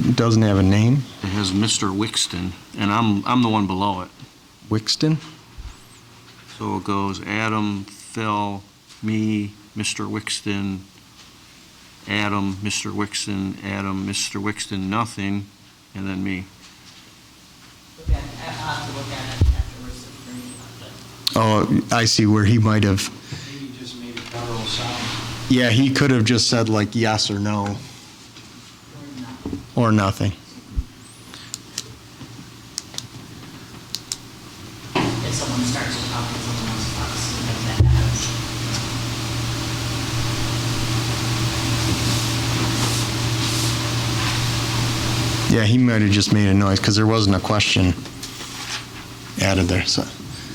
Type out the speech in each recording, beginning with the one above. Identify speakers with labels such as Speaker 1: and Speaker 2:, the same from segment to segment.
Speaker 1: doesn't have a name,
Speaker 2: It has Mr. Wixton, and I'm, I'm the one below it.
Speaker 1: Wixton?
Speaker 2: So it goes Adam, Phil, me, Mr. Wixton, Adam, Mr. Wixton, Adam, Mr. Wixton, nothing, and then me.
Speaker 3: Look at, I'll have to look at it afterwards. to determine, but
Speaker 1: Oh, I see where he might have,
Speaker 4: Maybe just made a guttural sound.
Speaker 1: yeah, he could have just said like yes or no, or
Speaker 3: we're not-
Speaker 1: nothing.
Speaker 3: If someone starts to talk, if someone else talks, make that happen.
Speaker 1: Yeah, he might have just made a noise, because there wasn't a question added there, so.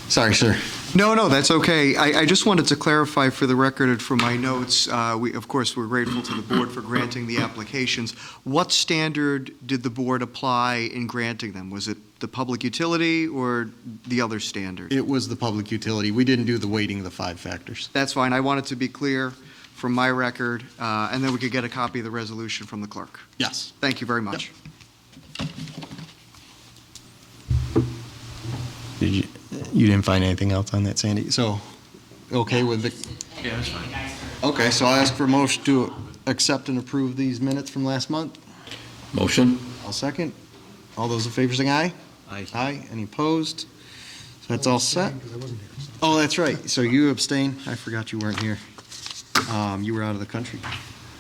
Speaker 1: Sorry, sir.
Speaker 5: No, no, that's okay. I, I just wanted to clarify for the record and for my notes, uh, we, of course, we're grateful to the board for granting the applications. What standard did the board apply in granting them? Was it the public utility or the other standard?
Speaker 1: It was the public utility. We didn't do the weighting of the five factors.
Speaker 5: That's fine, I wanted to be clear from my record, uh, and then we could get a copy of the resolution from the clerk.
Speaker 1: Yes.
Speaker 5: Thank you very much.
Speaker 1: Did you, you didn't find anything else on that, Sandy? So, okay with the,
Speaker 3: And
Speaker 2: Yeah, that's
Speaker 3: maybe the guys are-
Speaker 1: okay, so I'll ask for a motion to accept and approve these minutes from last month.
Speaker 6: Motion?
Speaker 1: I'll second. All those in favor, saying aye?
Speaker 2: Aye.
Speaker 1: Aye. Any opposed? So that's all set? Oh, that's right. So you abstain. I forgot you weren't here. Um, You were out of the country.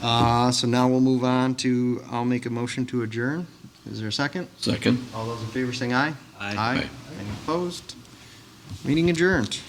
Speaker 1: Uh, So now we'll move on to, I'll make a motion to adjourn. Is there a second?
Speaker 6: Second?
Speaker 1: All those in favor, saying aye?
Speaker 2: Aye.
Speaker 1: Any opposed? Meeting adjourned.